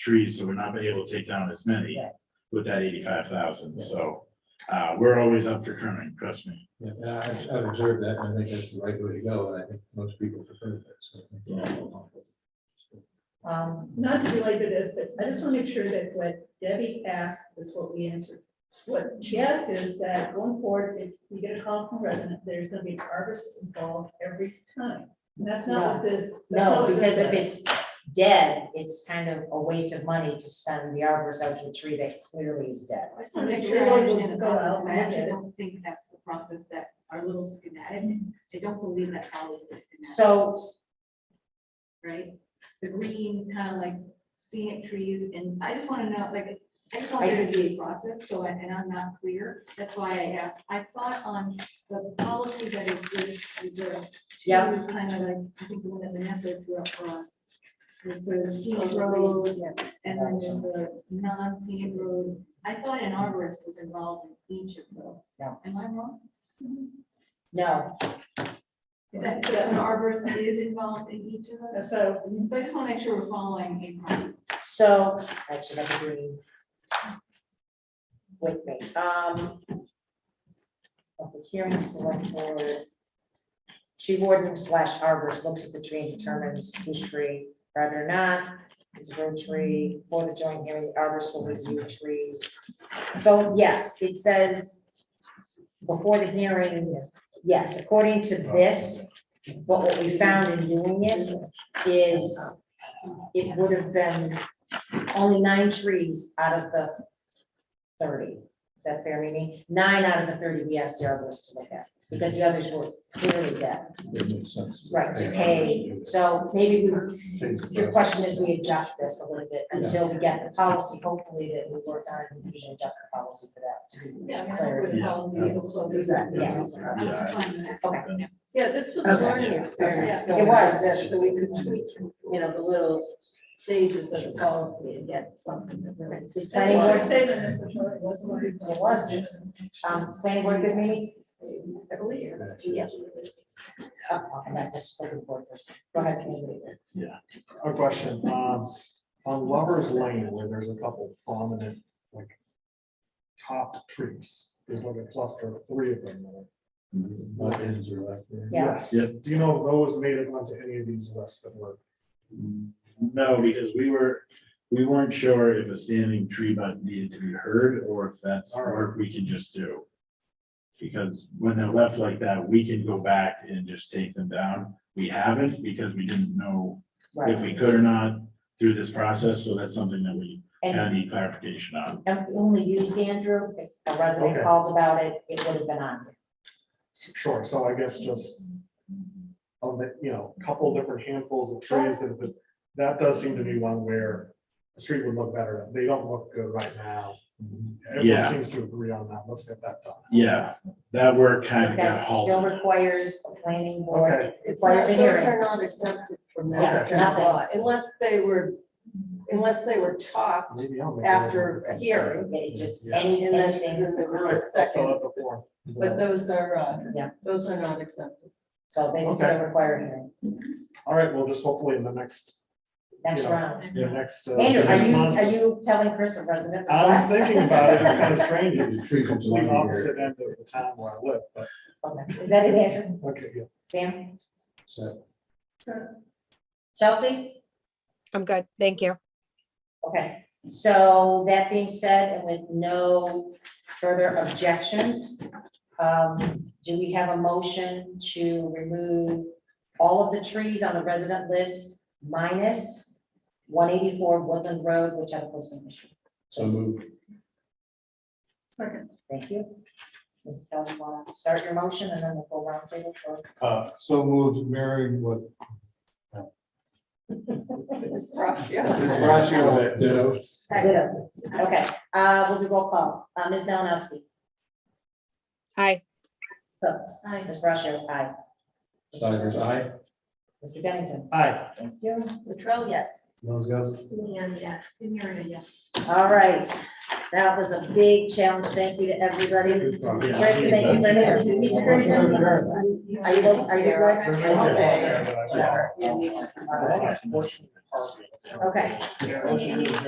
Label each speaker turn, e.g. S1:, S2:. S1: trees, so we're not gonna be able to take down as many
S2: Yeah.
S1: with that eighty-five thousand, so. Uh, we're always up for trimming, trust me.
S3: Yeah, and I- I've I've observed that, and I think that's the right way to go, and I think most people prefer that, so.
S2: Um,
S4: Not to belabor this, but I just want to make sure that what Debbie asked is what we answered. What she asked is that going forward, if we get a call from a resident, there's gonna be an arborist involved every time. And that's not what this. that's not
S2: no,
S4: what this
S2: because if
S4: says.
S2: it's dead, it's kind of a waste of money to spend the arborist out to a tree that clearly is dead.
S4: I just
S5: So
S4: wanna
S5: make
S4: make
S5: sure
S4: sure
S5: I
S4: everyone
S5: understand
S4: will
S5: the
S4: go out
S5: process,
S4: and look
S5: I
S4: at
S5: actually
S4: it.
S5: don't think that's the process that our little schematic, I don't believe that follows the schematic,
S2: So,
S5: right? The green, kind of like scenic trees, and I just want to know, like, I just want
S2: I-
S5: there to be a process, so, I- and I'm not clear, that's why I asked. I thought on the policy that exists, with the two
S2: Yeah.
S5: kind of like, I think the one that Vanessa drew up for us. Was sort of scenic roads, and then there's the non-scenic road. I thought an arborist was involved in each of those.
S2: Yeah.
S5: Am I wrong?
S2: no,
S5: That that an arborist is involved in each of those?
S4: So
S5: So I just want to make sure we're following a process.
S2: so, that should have agreed with me, um. Public hearing, select board. Tree warden slash arborist looks at the tree and determines whose tree, rather not, it's a real tree, for the joint hearing, the arborist will review trees. So, yes, it says before the hearing, yes, according to this, but what we found in doing it is it would have been only nine trees out of the thirty. Is that fair, Mimi? Nine out of the thirty we asked the arborist to look at, because the others were clearly dead,
S3: It makes sense.
S2: right, to pay. So maybe we, your question is we adjust this a little bit until we get the policy, hopefully that we worked on, we can adjust the policy for that.
S5: Yeah, I mean, with
S1: Yeah.
S5: policy, it's also-
S2: Exactly, yeah.
S5: I'm fine with that.
S2: Okay.
S6: Yeah, this was a
S2: Okay.
S6: learning experience.
S2: It was.
S6: that- So we could tweak, you know, the little stages of the policy and get something that really.
S2: Is
S4: that's
S2: planning
S4: why our
S2: board,
S4: statement is, the short- that's what it
S2: It was. um, planning board good meetings?
S6: I believe.
S2: Yes. Oh, okay, that's just like a board person. Go ahead, Commissioner.
S7: A question, um, on Lover's Lane, where there's a couple prominent, like, top trees, there's like a cluster of three of them there.
S3: My hands are left there.
S2: Yeah.
S7: Yes. Do you know if those made it onto any of these lists that were?
S1: No, because we were, we weren't sure if a standing tree bud needed to be heard or if that's
S7: All right.
S1: work we can just do. Because when they're left like that, we can go back and just take them down. We haven't because we didn't know
S2: Right.
S1: if we could or not through this process, so that's something that we kind of
S2: And,
S1: need clarification on.
S2: and we only used Andrew, if a resident
S7: Okay.
S2: called about it, it would have been on.
S7: Sure, so I guess just on the, you know, couple different handfuls of trees that, that, that does seem to be one where the street would look better. They don't look good right now.
S1: Yeah.
S7: Everyone seems to agree on that. Let's get that done.
S1: Yeah, that work kind of got
S2: That still
S1: halted.
S2: requires a planning board,
S7: Okay.
S2: it
S6: It's
S2: requires
S6: not,
S2: a
S6: those
S2: hearing.
S6: are not exempted from
S2: Yeah,
S6: master
S2: nothing.
S6: law unless they were, unless they were chopped
S7: Maybe I'll make a-
S6: after a hearing.
S2: It just,
S7: Yeah.
S2: any,
S6: And then
S2: anything,
S6: there was a second,
S7: Second.
S6: but those are, uh,
S2: Yeah.
S6: those are not exempted.
S2: so they would
S7: Okay.
S2: still require a hearing,
S7: All right, well, just hopefully in the next,
S2: next
S7: Yeah.
S2: round.
S7: the next. uh,
S2: Andrew, are
S7: six
S2: you,
S7: months.
S2: are you telling Chris a resident?
S7: I was thinking about it, it's kind of strange,
S3: The
S7: it's
S3: tree comes along
S7: complete
S3: here.
S7: opposite end of the town where I live, but,
S2: Okay. Is that it, Andrew,
S7: okay, yeah.
S2: Sam,
S3: So,
S4: So
S2: Chelsea?
S8: I'm good, thank you.
S2: Okay, so that being said, and with no further objections, um, do we have a motion to remove all of the trees on the resident list minus one eighty-four Woodland Road, which had a posting issue?
S3: so move.
S4: Second.
S2: Thank you. Ms. Kelly, want to start your motion and then we'll go round table for,
S3: Uh, so moves mirroring what.
S6: It's rough, yeah.
S3: Ditto.
S2: Ditto. okay, uh, we'll do roll call. Uh, Ms. Malinowski,
S8: Hi,
S2: so,
S4: I
S2: Ms. Brascio, aye.
S3: Cybers, aye.
S2: Mr. Bennington.
S7: Aye,
S2: Thank you. Latrell, yes.
S3: Those guys.
S5: And yes, and you're a yes.
S2: All right, that was a big challenge. Thank you to everybody. Chris, thank you for here. Mr. Grayson, Are you, are you good? Okay.
S7: Yeah.
S2: Sure.
S7: Motion.
S2: Okay.
S7: Yeah, motion to adjourn.